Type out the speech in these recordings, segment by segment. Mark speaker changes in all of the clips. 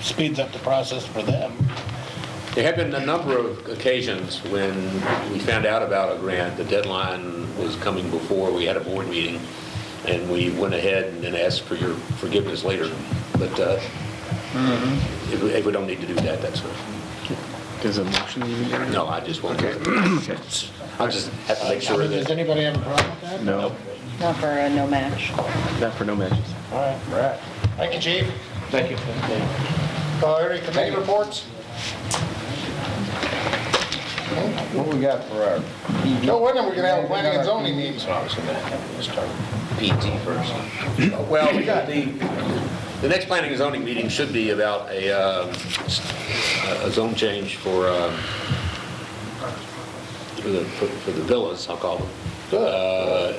Speaker 1: speeds up the process for them.
Speaker 2: There have been a number of occasions when we found out about a grant, the deadline was coming before, we had a board meeting, and we went ahead and then asked for your forgiveness later, but uh, if we- if we don't need to do that, that's fine.
Speaker 3: There's a motion you need to
Speaker 2: No, I just want to,
Speaker 3: Okay.
Speaker 2: I just have to make
Speaker 1: I
Speaker 2: sure
Speaker 1: mean, Does
Speaker 2: that,
Speaker 1: anybody have a problem with that?
Speaker 3: No,
Speaker 4: Not for a no match.
Speaker 3: not for no matches.
Speaker 1: All right, all right. Thank you, chief.
Speaker 3: Thank you.
Speaker 1: Uh, Any committee reports?
Speaker 5: What we got for our PD?
Speaker 1: No wonder we're gonna have a planning and zoning meeting. Let's start.
Speaker 5: PT first.
Speaker 2: well, the, the next planning and zoning meeting should be about a, um, a zone change for, um, for the, for for the villas, I'll call them. Uh,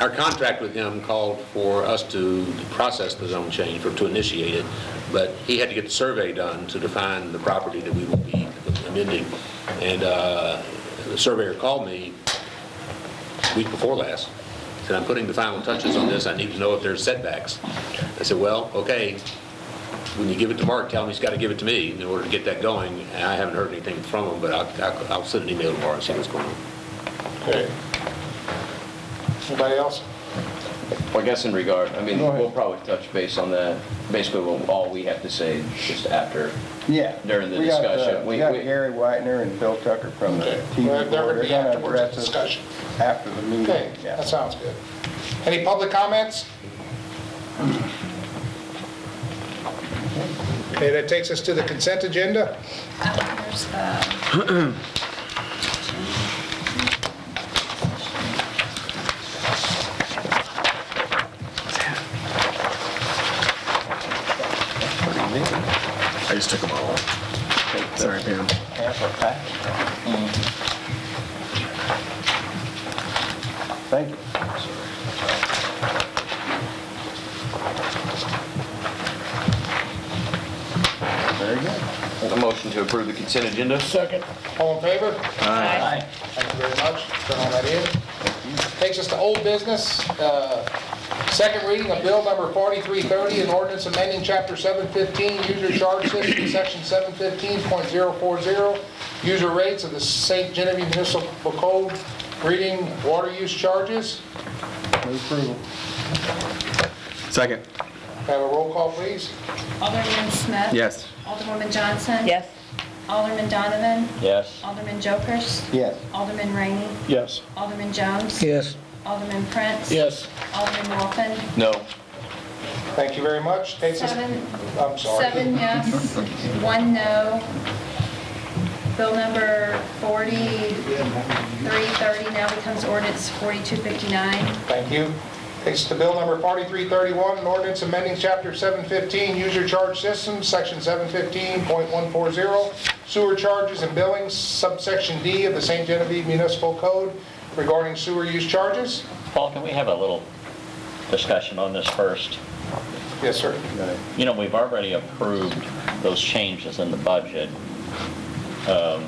Speaker 2: Our contract with him called for us to process the zone change or to initiate it, but he had to get the survey done to define the property that we will be amending. And uh, the surveyor called me week before last, said, "I'm putting the final touches on this, I need to know if there's setbacks." I said, "Well, okay, when you give it to Mark, tell him he's got to give it to me in order to get that going." And I haven't heard anything from him, but I'll- I'll I'll send an email tomorrow and see what's going on.
Speaker 1: Okay. Anybody else?
Speaker 5: Well, I guess in regard, I mean,
Speaker 1: Go ahead.
Speaker 5: we'll probably touch base on that. Basically, we'll- all we have to say just after.
Speaker 6: Yeah.
Speaker 5: During the
Speaker 6: We got, uh,
Speaker 5: discussion, we-
Speaker 6: We got
Speaker 5: we-
Speaker 6: Gary Whitener and Bill Tucker from the
Speaker 1: Okay.
Speaker 6: TV
Speaker 1: Well,
Speaker 6: board.
Speaker 1: They're gonna be
Speaker 6: They're gonna
Speaker 1: afterwards,
Speaker 6: address us
Speaker 1: discussion.
Speaker 6: After the meeting.
Speaker 1: Okay,
Speaker 6: yeah.
Speaker 1: that sounds good. Any public comments? Okay, that takes us to the consent agenda.
Speaker 4: There's the
Speaker 3: I just took them all. Sorry, Pam.
Speaker 6: Thank you. Very good.
Speaker 5: A motion to approve the consent agenda?
Speaker 1: Second. All in favor? Thank you very much. Turn all that in. Takes us to old business. uh, Second reading of bill number 4330, an ordinance amending chapter 715, user charge system, section 715.040, user rates of the St. Genevieve Municipal Code, reading water use charges.
Speaker 6: Move approval.
Speaker 3: Second.
Speaker 1: Can I Have a roll call, please.
Speaker 7: Alderman Smith.
Speaker 3: Yes.
Speaker 7: Alderwoman Johnson.
Speaker 4: Yes.
Speaker 7: Alderman Donovan.
Speaker 5: Yes.
Speaker 7: Alderman Jokers.
Speaker 6: Yes.
Speaker 7: Alderman Rainey.
Speaker 6: Yes.
Speaker 7: Alderman Jones.
Speaker 6: Yes.
Speaker 7: Alderman Prince.
Speaker 1: Yes.
Speaker 7: Alderman Wolfen.
Speaker 5: No.
Speaker 1: Thank you very much. Takes us,
Speaker 7: Seven,
Speaker 1: I'm sorry.
Speaker 7: seven yes, one no. Bill number 4330 now becomes ordinance 4259.
Speaker 1: Thank you. Takes us to bill number 4331, an ordinance amending chapter 715, user charge systems, section 715.140, sewer charges and billings, subsection D of the St. Genevieve Municipal Code regarding sewer use charges.
Speaker 8: Paul, can we have a little discussion on this first?
Speaker 1: Yes, sir.
Speaker 8: You know, we've already approved those changes in the budget. Um,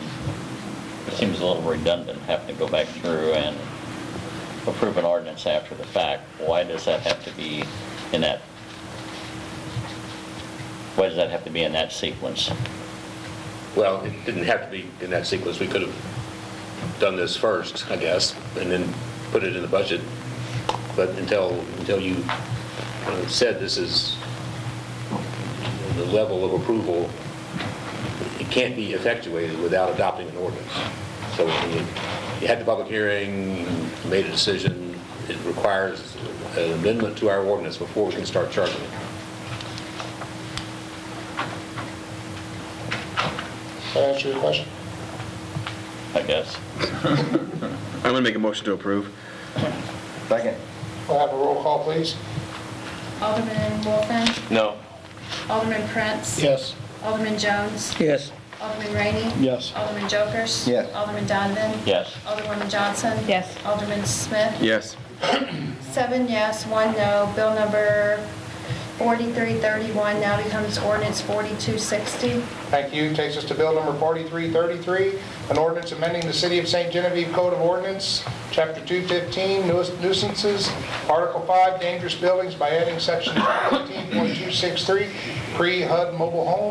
Speaker 8: It seems a little redundant having to go back through and approve an ordinance after the fact. Why does that have to be in that, why does that have to be in that sequence?
Speaker 2: Well, it didn't have to be in that sequence, we could have done this first, I guess, and then put it in the budget, but until, until you uh, said this is the level of approval, it can't be effectuated without adopting an ordinance. So you you had the public hearing, you made a decision, it requires an amendment to our ordinance before we can start charging it.
Speaker 1: Does that answer your question?
Speaker 8: I guess.
Speaker 3: I'm gonna make a motion to approve.
Speaker 6: Second.
Speaker 1: We'll have a roll call, please.
Speaker 7: Alderman Wolfen.
Speaker 5: No.
Speaker 7: Alderman Prince.
Speaker 1: Yes.
Speaker 7: Alderman Jones.
Speaker 6: Yes.
Speaker 7: Alderman Rainey.
Speaker 6: Yes.
Speaker 7: Alderman Jokers.
Speaker 6: Yes.
Speaker 7: Alderman Donovan.
Speaker 8: Yes.
Speaker 7: Alderwoman Johnson.
Speaker 4: Yes.
Speaker 7: Alderman Smith.
Speaker 3: Yes.
Speaker 7: Seven yes, one no. Bill number 4331 now becomes ordinance 4260.
Speaker 1: Thank you. Takes us to bill number 4333, an ordinance amending the City of St. Genevieve Code of Ordinance, Chapter 215, nuis- nuisances, Article 5, dangerous buildings by adding section 15.263, pre-HUD mobile home,